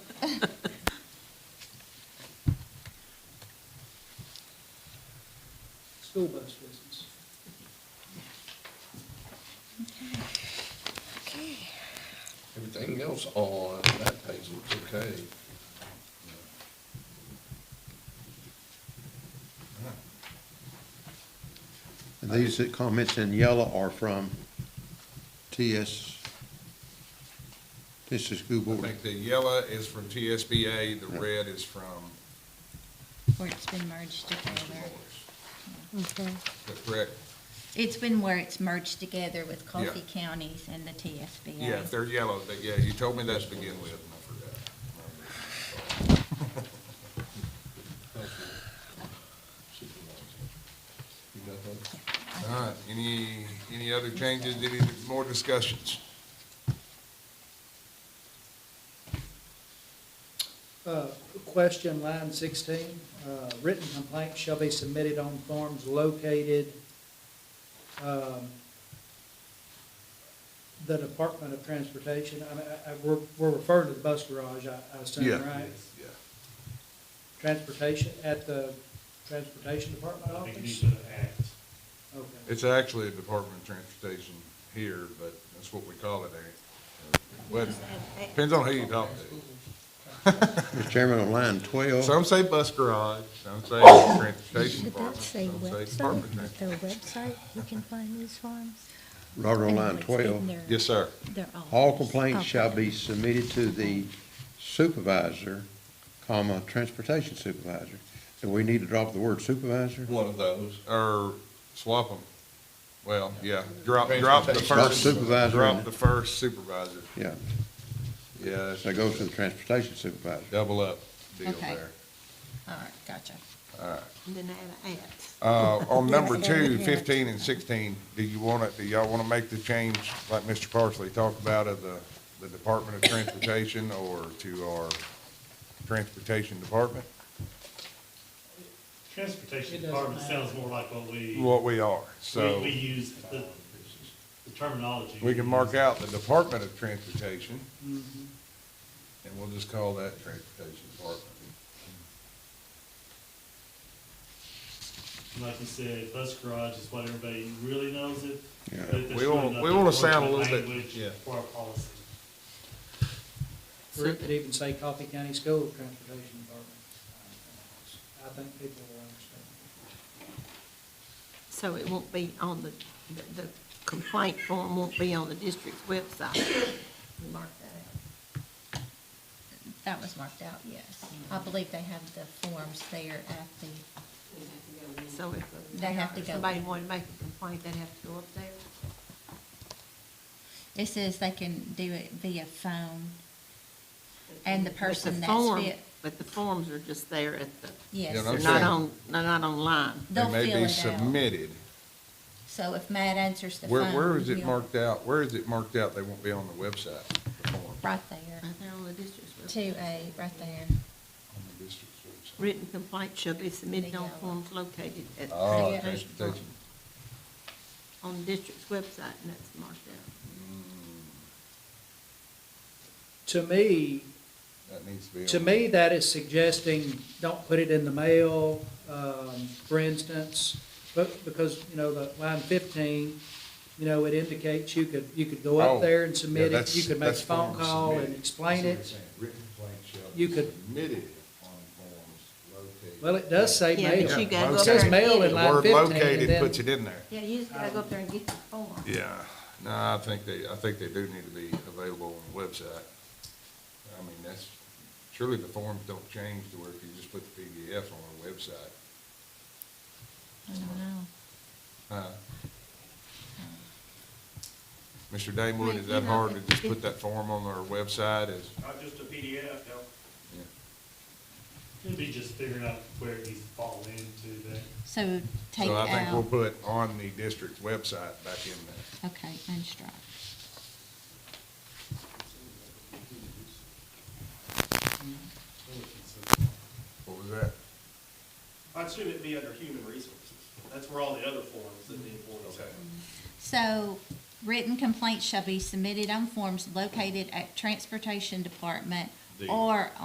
School bus business. Okay. Everything else on that page looks okay. And these comments in yellow are from TS, Tennessee School I Board. think the yellow is from TSBA, the red is from Where it's been merged Mr. together. Morris. Okay. That's correct. It's been where it's merged together with Yeah. Coffee Counties and the TSBA. Yeah, if they're yellow, they, yeah, you told me that to begin with, and I forgot. You got that? All right, any, any other changes, any more discussions? Uh, Question, line 16, uh, written complaints shall be submitted on forms located, um, the Department of Transportation, I mean, I- I- we're we're referring to the bus garage, I I assume, Yeah. right? Yeah. Transportation, at the Transportation Department I think you need office? to act. Okay. It's actually a Department of Transportation here, but that's what we call it, ain't it? Well, depends on who you talk to. Mr. Chairman, on line twelve. Some say bus garage, some say Oh. transportation Should that department, say some say website, department. of Is there a Transportation. website you can find these forms? Robert, on I know line it's in twelve, their- Yes, sir. their all office. complaints Okay. shall be submitted to the supervisor, comma, transportation supervisor. So we need to drop the word supervisor? One of those. Or swap them. Well, yeah, drop, drop the Transportation. Drop first, supervisor drop in. the first supervisor. Yeah, Yeah, so it goes to the transportation supervisor. double up deal Okay. there. All right, gotcha. Then I have act. Uh, on number Yes. two, fifteen and sixteen, do you wanna, do y'all wanna make the change, like Mr. Parsley talked about, of the, the Department of Transportation or to our Transportation Department? Transportation It doesn't Department matter. sounds more like what we, What we are, we, so we use the the terminology. we can mark out the Department of Transportation, and we'll just call that Transportation Department. Like you said, bus garage is what everybody really knows it. Yeah. but there's We wanna- really not we the wanna sound a appropriate little bit- language yeah. For our policy. Or it could even say Coffee County School Transportation Department. I think people will understand. So it won't be on the, the- the complaint form won't be on the district's website. Mark that That was marked out, yes. I believe they have the forms there at the, out. So if. They have to go. if Somebody wanted to make a complaint, they'd have to go up there. it says they can do it via phone. And the But person that's form- fit- But the forms are just there at the, Yes. Yeah, no, they're I'm not saying- on, they're not online. They They'll may fill be it out. submitted. So if Matt answers the Where, phone. where is it he'll- marked out? Where is it marked out? They won't be on the website. the form, Right there. Right there on the district's Two website. A, right there. on the district's website. Written complaint shall be submitted There on you go. forms located at. the Oh, Yeah. transportation transportation. department. On the district's website, and that's marked out. To me, That needs to be. To on- me, that is suggesting, don't put it in the mail, um, for instance, but, because, you know, the line fifteen, you know, it indicates you could, you could go Oh, up there and yeah, submit it, that's- you could make a that's phone forms call and submitted. explain That's what it. I'm saying. Written complaint shall You be could- Submitted on forms located. Well, it does say Yeah, mail. but you gotta Yeah, go It located. up there says and get mail it. in The line word fifteen, and located then- puts it in there. Yeah, you just gotta go up there and get the form. Yeah, no, I think they, I think they do need to be available on the website. I mean, that's, surely the forms don't change to where if you just put the PDF on our website. I don't know. huh? Mr. Damewood, is that hard to just put that form on our website as? Not just a PDF, Yeah. It'd be just figuring out where these fall into that. So take So I think we'll out, put on the district's website back in there. okay, and strike. What was that? I'd assume it'd be under human resources. That's where all the other forms that the employees have. So written complaints shall be submitted on forms located at Transportation Department or